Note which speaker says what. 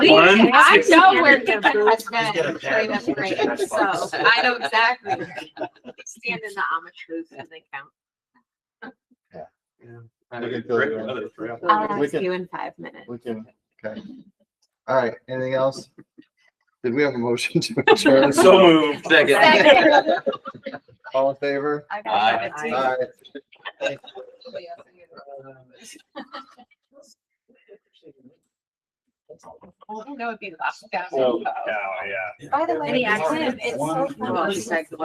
Speaker 1: One.
Speaker 2: I know where
Speaker 3: He's
Speaker 2: Kevin has been
Speaker 3: got a
Speaker 2: during
Speaker 3: pad.
Speaker 2: this break, so I know exactly. where he is. Stand in the Amish booth and they count.
Speaker 4: We can fill you in.
Speaker 2: I'll
Speaker 4: We
Speaker 2: ask
Speaker 4: can-
Speaker 2: you in five minutes.
Speaker 4: We can, okay. All right, anything else? Did we have a motion to adjourn?
Speaker 1: So moved.
Speaker 2: Second.
Speaker 4: All in favor?
Speaker 2: I
Speaker 1: gotta
Speaker 2: got
Speaker 4: All right.
Speaker 2: That would be the last.
Speaker 1: Oh, cow, yeah.
Speaker 2: By the
Speaker 3: way,
Speaker 2: way,
Speaker 3: the accent,
Speaker 2: it's so
Speaker 3: One-
Speaker 2: funny.